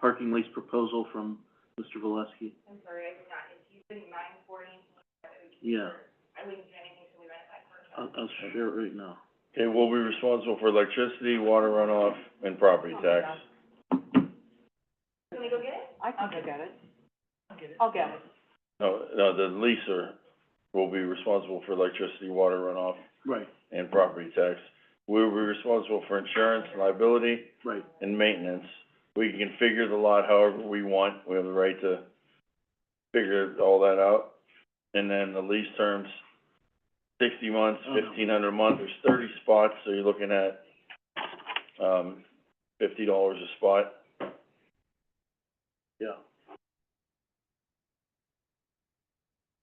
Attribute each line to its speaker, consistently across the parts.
Speaker 1: parking lease proposal from Mr. Valesky?
Speaker 2: I'm sorry, I did not, if you wouldn't mind forwarding, that would be
Speaker 1: Yeah.
Speaker 2: super. I wouldn't do anything till we run it by first.
Speaker 1: I'll, I'll share it right now.
Speaker 3: Okay, we'll be responsible for electricity, water runoff, and property tax.
Speaker 2: Can we go get it?
Speaker 4: I can go get it. I'll get it. I'll get it.
Speaker 3: No, no, the leaser will be responsible for electricity, water runoff,
Speaker 1: Right,
Speaker 3: and property tax. We'll be responsible for insurance, liability,
Speaker 1: right.
Speaker 3: and maintenance. We can configure the lot however we want, we have the right to figure all that out. And then the lease terms, sixty months,
Speaker 1: Oh, no.
Speaker 3: fifteen hundred a month, there's thirty spots, so you're looking at, um, fifty dollars a spot.
Speaker 1: Yeah.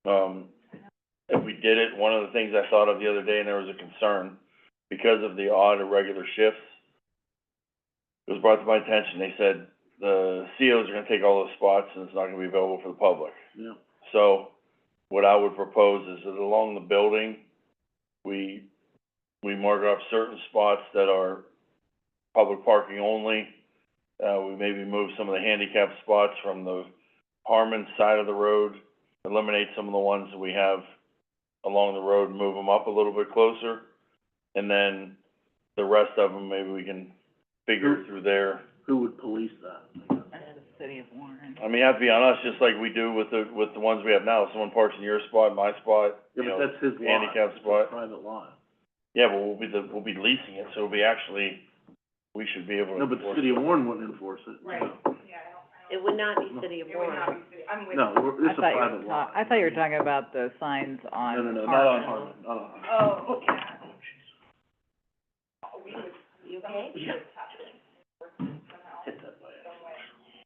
Speaker 3: Um, if we did it, one of the things I thought of the other day, and there was a concern, because of the odd irregular shifts, it was brought to my attention, they said, the COs are gonna take all those spots, and it's not gonna be available for the public.
Speaker 1: Yeah,
Speaker 3: So, what I would propose is that along the building, we, we mark off certain spots that are public parking only. Uh, we maybe move some of the handicap spots from the Harmon side of the road, eliminate some of the ones that we have along the road, move them up a little bit closer. And then the rest of them, maybe we can figure through there.
Speaker 1: who would police that? I guess?
Speaker 4: The city of Warren.
Speaker 3: I mean, that'd be on us, just like we do with the, with the ones we have now. If Someone parks in your spot, my spot,
Speaker 1: Yeah,
Speaker 3: you
Speaker 1: but
Speaker 3: know.
Speaker 1: that's his lot.
Speaker 3: handicap
Speaker 1: It's a
Speaker 3: spot.
Speaker 1: Private lot.
Speaker 3: Yeah, but we'll be the, we'll be leasing it, so it'll be actually, we should be able to
Speaker 1: No, but the
Speaker 3: enforce
Speaker 1: city of Warren wouldn't enforce it.
Speaker 2: Right, yeah, I don't, I
Speaker 5: It
Speaker 2: don't,
Speaker 5: would not be City of
Speaker 2: it would
Speaker 5: Warren.
Speaker 2: not be, fit. I'm with.
Speaker 1: No, we're- it's a private lot.
Speaker 4: I thought you were talking about the signs on
Speaker 1: No, no,
Speaker 4: Harmon.
Speaker 1: no, not on Harmon, not on Harmon.
Speaker 2: Oh, yeah. We would,
Speaker 5: You
Speaker 2: someone
Speaker 5: okay?
Speaker 2: would touch it, somehow,
Speaker 1: Hit that by accident.
Speaker 2: some way.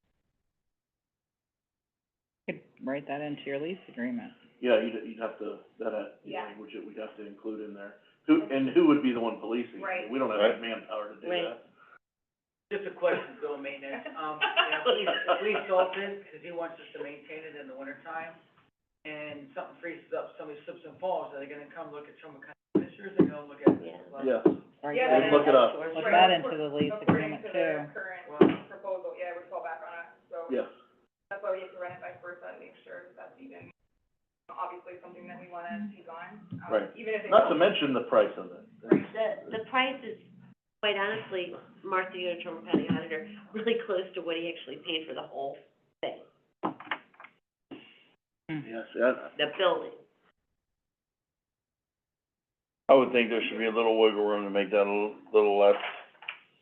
Speaker 4: You could write that into your lease agreement.
Speaker 1: Yeah, you'd, you'd have to, that, uh, you
Speaker 2: Yeah.
Speaker 1: know, which we'd have to include in there. Who, and who would be the one policing? it?
Speaker 2: Right.
Speaker 1: We don't have the
Speaker 3: Right.
Speaker 1: manpower to do
Speaker 5: Right.
Speaker 1: that.
Speaker 6: Just a question, Bill, maintenance, um, you know, we, we sold this, cause he wants us to maintain it in the wintertime, and something freezes up, somebody slips and falls, are they gonna come look at Trumbull County Commissioners, or they gonna look at this?
Speaker 5: Yeah.
Speaker 6: Well,
Speaker 1: Yeah,
Speaker 4: Or
Speaker 2: Yeah, but
Speaker 4: you
Speaker 1: look
Speaker 4: could
Speaker 1: it up.
Speaker 4: Put
Speaker 2: Right.
Speaker 4: that into the lease agreement too.
Speaker 2: According to the current
Speaker 6: Wow.
Speaker 2: proposal, yeah, it would fall back on us, so.
Speaker 1: yeah.
Speaker 2: That's why we have to run it by first, and make sure that that's even, obviously, something that we wanna take on. um,
Speaker 1: Right.
Speaker 2: Even if it's.
Speaker 1: Not to mention the price of it.
Speaker 5: The, the price is, quite honestly, Martha, you're a Trumbull County auditor, really close to what he actually paid for the whole thing,
Speaker 4: Hmm.
Speaker 1: Yes, yeah,
Speaker 5: the building.
Speaker 3: I would think there should be a little wiggle room to make that a little, little less,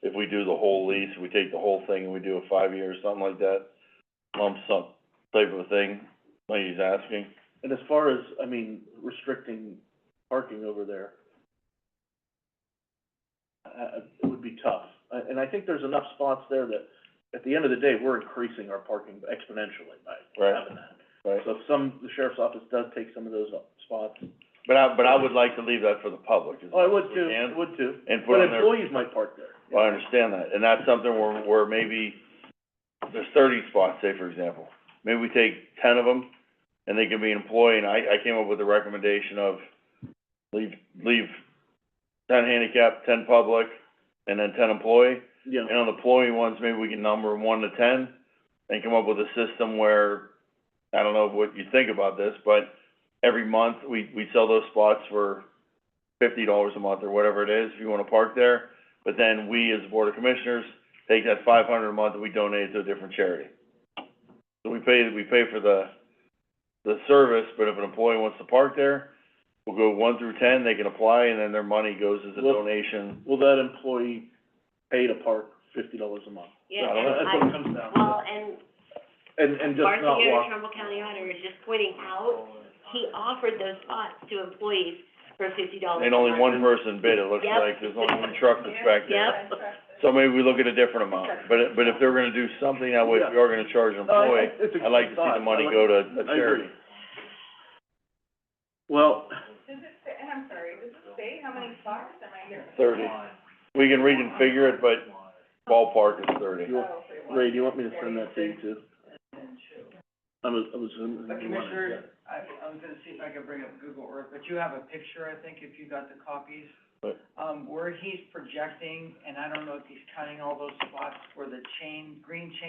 Speaker 3: if we do the whole lease, we take the whole thing and we do a five-year or something like that, lump sum type of thing, like he's asking.
Speaker 1: And as far as, I mean, restricting parking over there, uh, it would be tough. Uh, And I think there's enough spots there that, at the end of the day, we're increasing our parking exponentially by
Speaker 3: Right.
Speaker 1: having that.
Speaker 3: Right.
Speaker 1: So if some, the sheriff's office does take some of those up- spots,
Speaker 3: But I, but I would like to leave that for the public, as
Speaker 1: oh, I
Speaker 3: much
Speaker 1: would
Speaker 3: as we
Speaker 1: too,
Speaker 3: can,
Speaker 1: I would too.
Speaker 3: And put
Speaker 1: But
Speaker 3: on there,
Speaker 1: employees might park there.
Speaker 3: I understand that, and that's something where, where maybe, there's thirty spots, say for example, maybe we take ten of them, and they can be employee, and I, I came up with a recommendation of leave, leave ten handicap, ten public, and then ten employee,
Speaker 1: Yeah,
Speaker 3: and on the employee ones, maybe we can number 'em one to ten, and come up with a system where, I don't know what you think about this, but every month, we, we sell those spots for fifty dollars a month or whatever it is, if you wanna park there, but then we, as a Board of Commissioners, take that five hundred a month and we donate it to a different charity. So we pay, we pay for the, the service, but if an employee wants to park there, we'll go one through ten, they can apply, and then their money goes as a
Speaker 1: Well-
Speaker 3: donation.
Speaker 1: will that employee pay to park fifty dollars a month?
Speaker 3: I
Speaker 5: Yeah,
Speaker 3: don't know,
Speaker 5: and
Speaker 1: That's what it comes down
Speaker 5: I, well,
Speaker 1: to.
Speaker 5: and
Speaker 1: And, and just
Speaker 5: Martha,
Speaker 1: not
Speaker 5: you're a
Speaker 1: walk.
Speaker 5: Trumbull County auditor, is just pointing out, he offered those spots to employees for fifty dollars
Speaker 3: And only one person bid, it looks
Speaker 5: Yep.
Speaker 3: like, there's only one truck that's back there.
Speaker 5: Yep.
Speaker 3: So maybe we look at a different amount, but, it- but if they're gonna do something that way, if we are gonna charge an employee, I'd like to see the money go to a
Speaker 1: Uh, I
Speaker 3: charity.
Speaker 1: agree. Well,
Speaker 2: Does it say, and I'm sorry, does it say how many spots am I here?
Speaker 3: Thirty. We can reconfigure it, but ballpark is thirty.
Speaker 2: Oh, so it was-
Speaker 1: Ray, do you want me to send that to you too? I was, I was assuming
Speaker 6: But
Speaker 1: you wanted,
Speaker 6: Commissioners, I, I was gonna see if I could bring up Google Earth, but you have a picture, I think, if you got the copies.
Speaker 3: Right.
Speaker 6: Um, where he's projecting, and I don't know if he's counting all those spots where the chain, green chain